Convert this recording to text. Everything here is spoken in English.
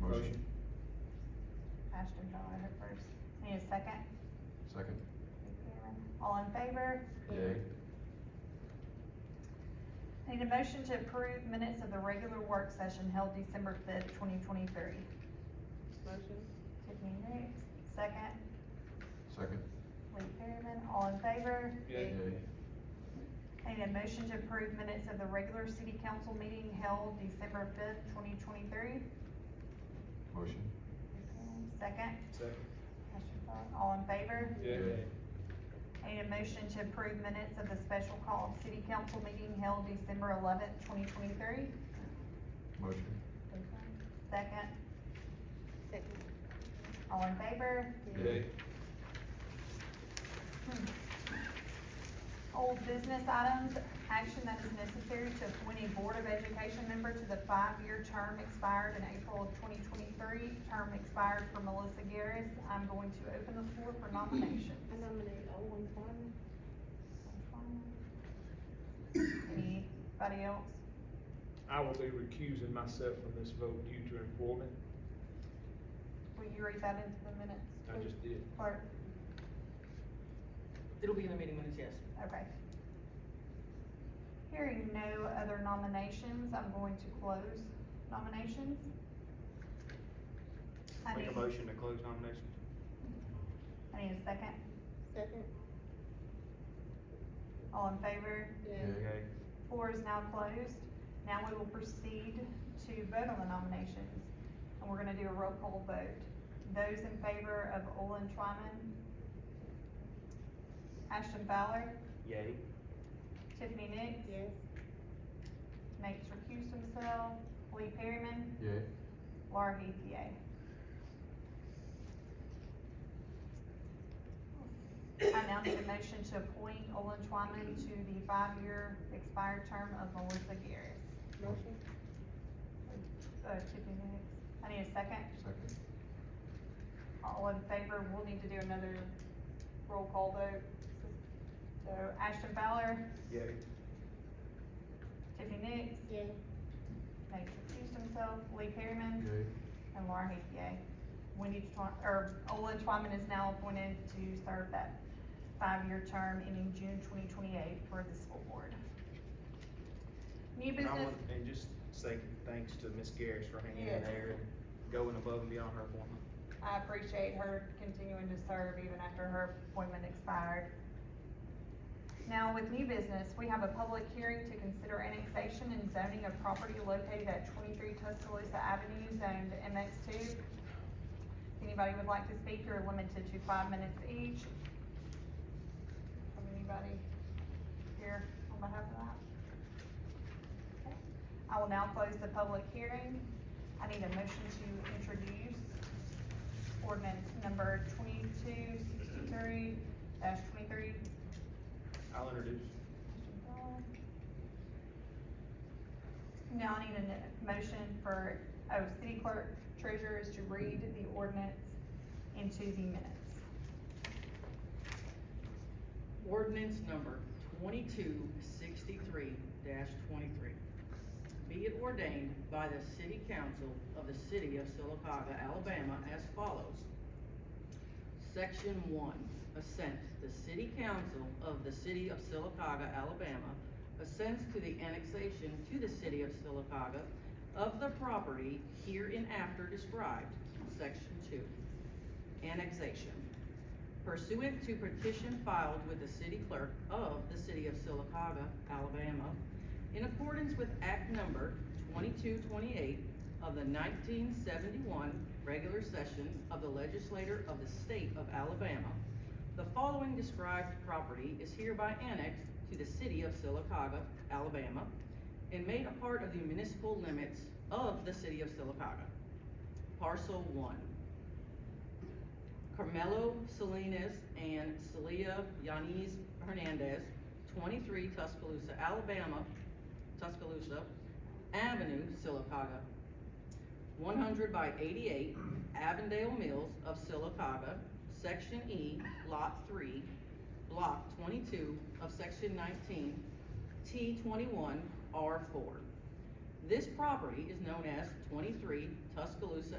motion? Ashton Fowler heard first. Need a second? Second. All in favor? Yay. Need a motion to approve minutes of the regular work session held December fifth, twenty twenty-three. Motion? Tiffany Hicks, second. Second. Lee Perryman, all in favor? Yay. Need a motion to approve minutes of the regular city council meeting held December fifth, twenty twenty-three. Motion? Second. Second. Ashton Fowler, all in favor? Yay. Need a motion to approve minutes of the special call city council meeting held December eleventh, twenty twenty-three. Motion? Second. Second. All in favor? Hmm. Yay. Old business items, action that is necessary to appoint a Board of Education member to the five-year term expired in April of twenty twenty-three. Term expired for Melissa Garris. I'm going to open the floor for nominations. I nominate Owen Farman. Anybody else? I will be recusing myself from this vote due to employment. Will you read that into the minutes? I just did. Clerk, It'll be in the meeting minutes, yes. okay. Hearing no other nominations, I'm going to close nominations. I Make a need- motion to close nominations. I need a second. Second. All in favor? Yay. Yay. Floor is now closed. Now we will proceed to vote on the nominations. And we're gonna do a roll call vote. Those in favor of Olin Twyman? Ashton Fowler? Yay. Tiffany Nix? Yes. Nate's recused himself. Lee Perryman? Yay. Laura Heath, yay. I now need a motion to appoint Olin Twyman to the five-year expired term of Melissa Garris. Motion? Uh, Tiffany Hicks. I need a second. Second. All in favor, we'll need to do another roll call vote. So Ashton Fowler, Yay. Tiffany Nix, Yes. Nate recused himself, Lee Perryman, Yay. and Laura Heath, yay. Wendy Twyman, or Olin Twyman is now appointed to serve that five-year term ending June twenty twenty-eight for the school board. New And I business, want- And just say thanks to Miss Garris for hanging in Yes. there and going above and beyond her appointment. I appreciate her continuing to serve even after her appointment expired. Now, with new business, we have a public hearing to consider annexation and zoning of property located at twenty-three Tuscaloosa Avenue, zoned MX two. If anybody would like to speak, you're limited to five minutes each. From anybody here on behalf of that? Okay. I will now close the public hearing. I need a motion to introduce ordinance number twenty-two sixty-three dash twenty-three I'll introduce. now I need a n- motion for, oh, city clerk treasurer is to read the ordinance into the minutes. Ordinance number twenty-two sixty-three twenty-three. Be it ordained by the city council of the city of Silicaga, Alabama as follows. Section one, assent. The city council of the city of Silicaga, Alabama assents to the annexation to the city of Silicaga of the property hereinafter described. Section two, annexation. pursuant to petition filed with the city clerk of the city of Silicaga, Alabama, in accordance with Act Number twenty-two twenty-eight of the nineteen seventy-one regular session of the legislature of the state of Alabama, the following described property is hereby annexed to the city of Silicaga, Alabama, and made a part of the municipal limits of the city of Silicaga. Parcel one, Carmelo Salinas and Celia Yanis Hernandez, twenty-three Tuscaloosa, Alabama, Tuscaloosa Avenue, Silicaga. One hundred by eighty-eight Avondale Mills of Silicaga, Section E, Lot Three, Block twenty-two of Section nineteen, T twenty-one, R four. This property is known as twenty-three Tuscaloosa